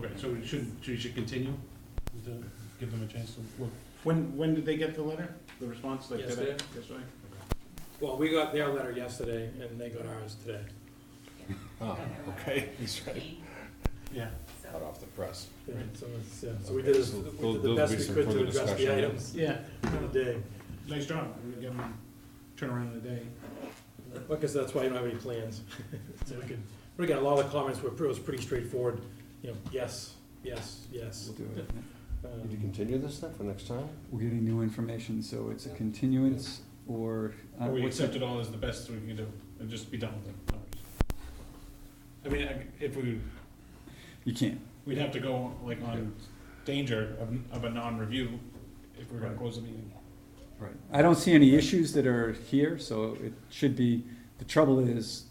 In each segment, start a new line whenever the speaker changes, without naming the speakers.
right, so we should, we should continue to give them a chance to look.
When, when did they get the letter, the response, like today?
Yesterday.
Yesterday?
Well, we got their letter yesterday, and they got ours today.
Oh, okay, he's right,
Yeah.
hot off the press.
Yeah, So it's, yeah, so we did, as- we did the best we could to address the items
Yeah,
for the day.
nice job, we get them, turn around in a day.
Because that's why you don't have any plans. So we could, but again, a lot of the comments were, it was pretty straightforward, you know, yes, yes, yes.
We'll do it.
Um,
Did you continue this then for next time?
We're getting new information, so it's a continuance or. uh,
Or we
what's the-
accept it all as the best we can do, and just be done with it. I mean, I- if we,
You can't.
we'd have to go like on danger of, of a non-review if we we're gonna
Right.
close the meeting.
Right. I don't see any issues that are here, so it should be, the trouble is,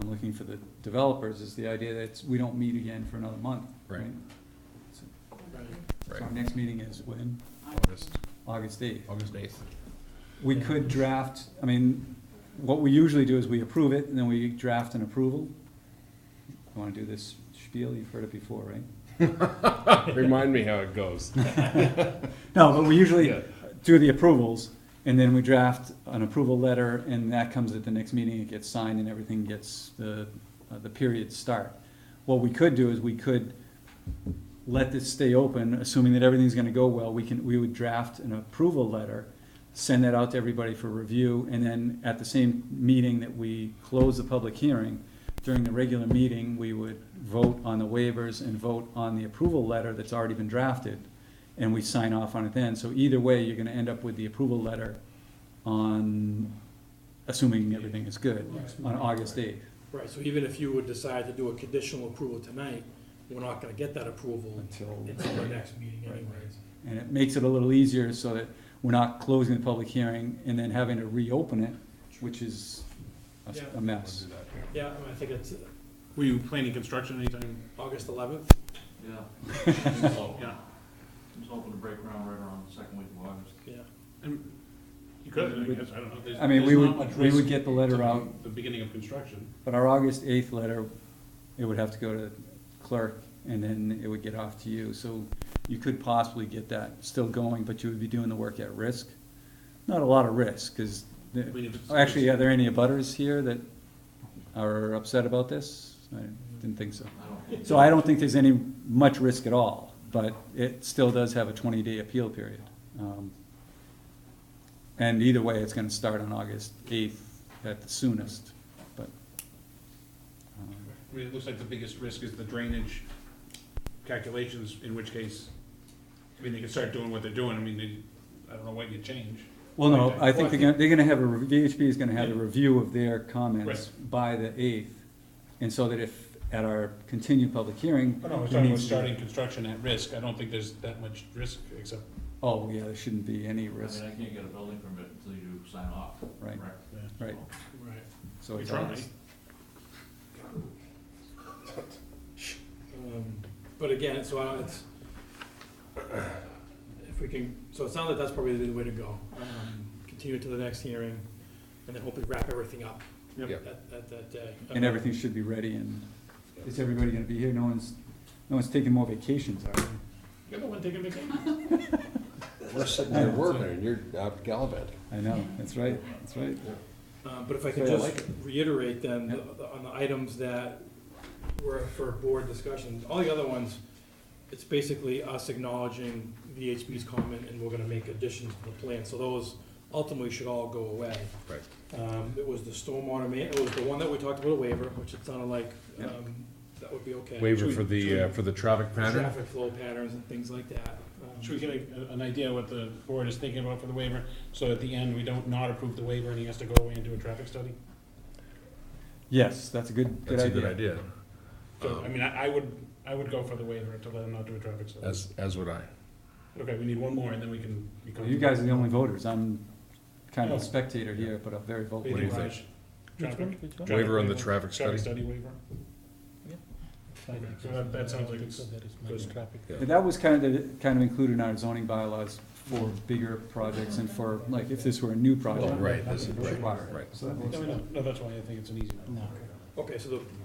I'm looking for the developers, is the idea that it's- we don't meet again for another month.
Right.
right.
So our next meeting is when?
August,
August eighth.
August eighth.
We could draft, I mean, what we usually do is we approve it, and then we draft an approval. You wanna do this spiel, you've heard it before, right?
Remind me how it goes.
No, but we usually
Yeah.
do the approvals, and then we draft an approval letter, and that comes at the next meeting, it gets signed, and everything gets, the, uh, the periods start. What we could do is we could let this stay open, assuming that everything's gonna go well, we can, we would draft an approval letter, send that out to everybody for review, and then at the same meeting that we close the public hearing, during the regular meeting, we would vote on the waivers and vote on the approval letter that's already been drafted, and we sign off on it then. So either way, you're gonna end up with the approval letter on, assuming everything is good, on August eighth.
Right, so even if you would decide to do a conditional approval tonight, we're not gonna get that approval
Until.
until the next meeting
Right.
anyways.
And it makes it a little easier so that we're not closing the public hearing and then having to reopen it, which is a s- a mess.
Yeah, I mean, I think it's uh,
Were you planning construction anytime?
August eleventh.
Yeah,
Yeah,
I'm hoping to break ground right around the second week of August.
Yeah,
and you could, I guess, I don't know. There's-
I mean, we
there's
would-
not much
we would
risk
get the letter
to
out.
The beginning of construction.
But our August eighth letter, it would have to go to clerk and then it would get off to you. So you could possibly get that still going, but you would be doing the work at risk. Not a lot of risk, cause, the-
I mean, if it's-
Oh, actually, are there any abutters here that are upset about this? I didn't think so.
I don't.
So I don't think there's any much risk at all, but it still does have a twenty-day appeal period. Um, And either way, it's gonna start on August eighth at the soonest, but. um,
I mean, it looks like the biggest risk is the drainage calculations, in which case, I mean, they can start doing what they're doing, I mean, they, I don't know what you change.
Well, no, I think they're gonna, they're gonna have a, re- VHB is gonna have a review of their comments by the eighth. And so that if, at our continued public hearing.
Oh, no, we're
it
talking about
needs to be-
starting construction at risk, I don't think there's that much risk, except,
Oh, yeah, there shouldn't be any
I mean,
risk,
I can't get a building permit until you sign off.
Right.
correct?
yeah.
right,
right.
so
So-
We
it's.
try.
August.
Um, But again, so I don't- it's, if we can, so it sounds like that's probably the way to go. Um, Continue to the next hearing, and then hopefully wrap everything up
Yep.
at, at that day.
And everything should be ready and, is everybody gonna be here? No one's, no one's taking more vacations, are they?
You're the one taking vacation.
We're sitting there working and you're out gallivanting.
I know, that's right, that's right.
Um, But if I could
Yeah, I
just
like
reiterate then,
Yeah.
the- on the items that were for board discussion, all the other ones, it's basically us acknowledging VHB's comment, and we're gonna make additions to the plan, so those ultimately should all go away.
Right.
Um, it was the stormwater ma, it was the one that we talked about a waiver, which it sounded like,
Yeah.
um, that would be okay.
Waiver
Should
for
we-
the, uh, for the traffic pattern?
Traffic flow patterns and things like that. Um,
Should we get a, an idea what the board is thinking about for the waiver, so at the end, we don't not approve the waiver, and he has to go away and do a traffic study?
Yes, that's a good, good
That's a good
idea.
idea,
So, I mean, I, I would, I would go for the waiver to let him not do a traffic study.
as, as would I.
Okay, we need one more, and then we can. we can-
You guys are the only voters, I'm kind of a
Yeah.
spectator here, but I'm very
Oh. What do
vocal.
you
What do you
think? Traffic? Traffic
Waiver on the traffic study?
Traffic study waiver?
Yeah.
Okay, so that, that sounds like it's. goes-
And That was kind of, the- kind of included in our zoning bylaws for bigger projects and for, like, if this were a new
Oh,
project.
right, this is,
it would
right,
require it.
right.
So that
No,
makes-
no, no, that's why I think it's an easy one.
Okay, so the